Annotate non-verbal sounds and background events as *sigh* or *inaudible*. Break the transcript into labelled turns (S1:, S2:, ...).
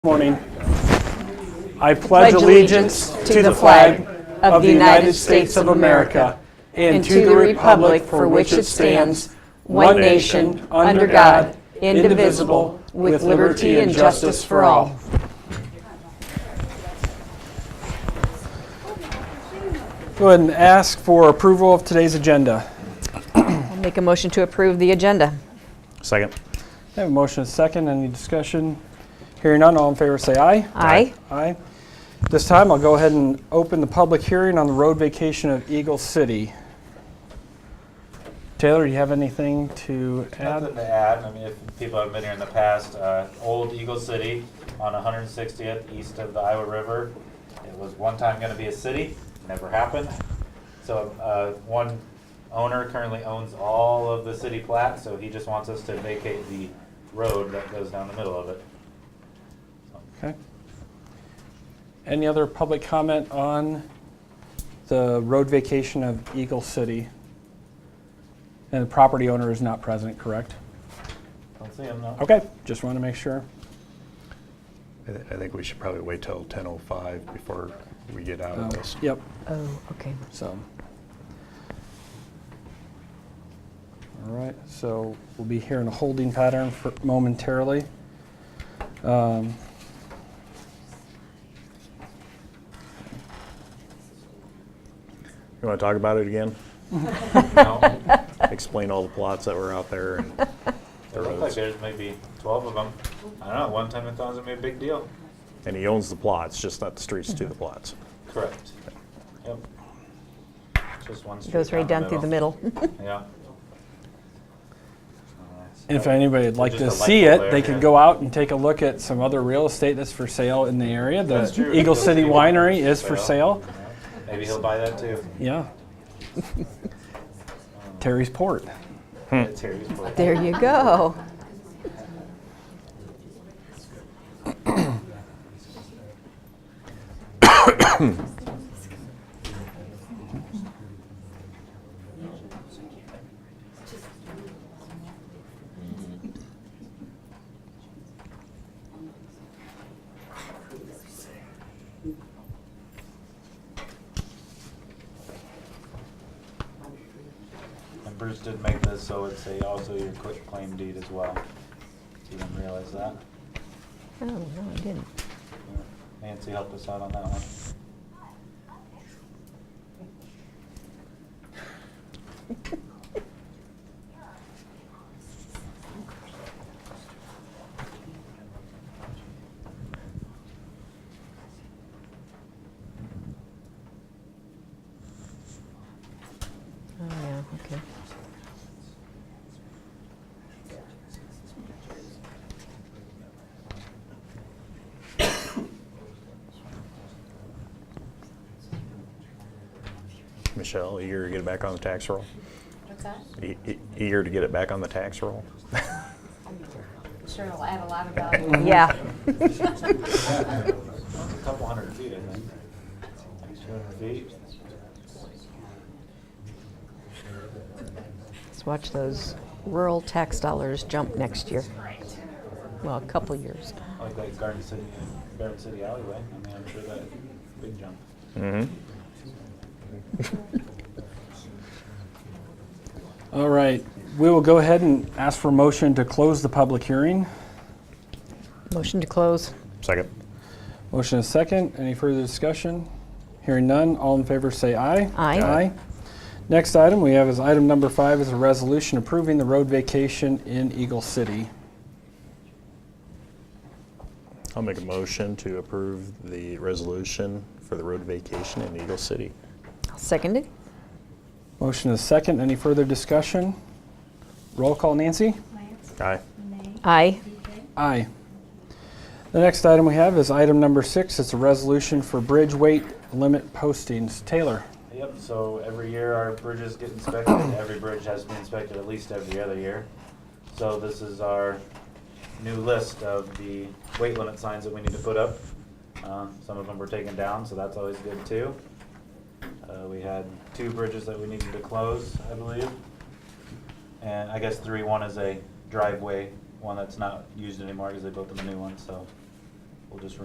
S1: morning. I pledge allegiance to the flag of the United States of America and to the republic for which it stands, one nation, under God, indivisible, with liberty and justice for all. Go ahead and ask for approval of today's agenda.
S2: Make a motion to approve the agenda.
S3: Second.
S1: I have a motion and a second. Any discussion? Hearing none, all in favor say aye.
S2: Aye.
S1: Aye. This time, I'll go ahead and open the public hearing on the road vacation of Eagle City. Taylor, do you have anything to add?
S3: Nothing to add, I mean, if people haven't been here in the past, uh, old Eagle City on 160th east of the Iowa River. It was one time gonna be a city, never happened. So, uh, one owner currently owns all of the city plat, so he just wants us to vacate the road that goes down the middle of it.
S1: Okay. Any other public comment on the road vacation of Eagle City? And the property owner is not present, correct?
S3: Don't see him, no.
S1: Okay, just want to make sure.
S4: I thi- I think we should probably wait till 10:05 before we get out
S1: Um,
S4: of this.
S1: Yep,
S2: Oh, okay.
S1: so. All right, so we'll be here in a holding pattern for momentarily. Um,
S4: You want to talk about it *laughs* again?
S3: No.
S4: Explain all the plots that were out there and
S3: It
S4: the
S3: looked like
S4: roads.
S3: there's maybe 12 of them. I don't know, one time it was gonna be a big deal.
S4: And he owns the plots, just not the streets to the plots.
S3: Correct. Yep. Just one street.
S2: Goes right down through the middle. *laughs*
S3: Yeah.
S1: And If anybody would like
S3: just
S1: to
S3: a
S1: see
S3: light pole
S1: it, they
S3: there,
S1: could
S3: yeah.
S1: go out and take a look at some other real estate that's for sale in the area.
S3: That's
S1: The
S3: true.
S1: Eagle City Winery is for sale.
S3: Maybe he'll buy that too. *laughs*
S1: Yeah. Terry's Port.
S3: It's Terry's place.
S2: There you go.
S3: And Bruce did make this, so it's a, also your quick claim deed as well. You didn't realize that.
S2: Oh, no, I didn't.
S3: Nancy helped us out on that one.
S2: Oh, yeah, okay.
S4: Michelle, a year to get it back on the tax roll?
S5: What's that?
S4: E- e- A year to get it back on the tax roll?
S5: Sure, it'll add a lot of
S2: *laughs*
S5: value.
S2: Yeah.
S3: A couple hundred feet, I think. Two hundred feet.
S2: Let's watch those rural tax dollars jump next year. Well, a couple years.
S3: Like that Garden City, Garden City alleyway. I mean, I'm sure that big jump.
S4: Mm-hmm.
S1: All right, we will go ahead and ask for a motion to close the public hearing.
S2: Motion to close.
S4: Second.
S1: Motion is second. Any further discussion? Hearing none, all in favor say aye.
S2: Aye.
S1: Aye. Next item we have is item number five is a resolution approving the road vacation in Eagle City.
S4: I'll make a motion to approve the resolution for the road vacation in Eagle City.
S2: Seconded?
S1: Motion is second. Any further discussion? Roll call, Nancy?
S5: Lance,
S4: Aye.
S5: Renee,
S2: Aye.
S5: BK,
S1: Aye. The next item we have is item number six. It's a resolution for bridge weight limit postings. Taylor?
S3: Yep, so every year our bridges get inspected, every bridge has to be inspected at least every other year. So this is our new list of the weight limit signs that we need to put up. Uh, Some of them were taken down, so that's always good too. Uh, We had two bridges that we needed to close, I believe. And I guess three, one is a driveway, one that's not used anymore because they built them a new one, so We'll just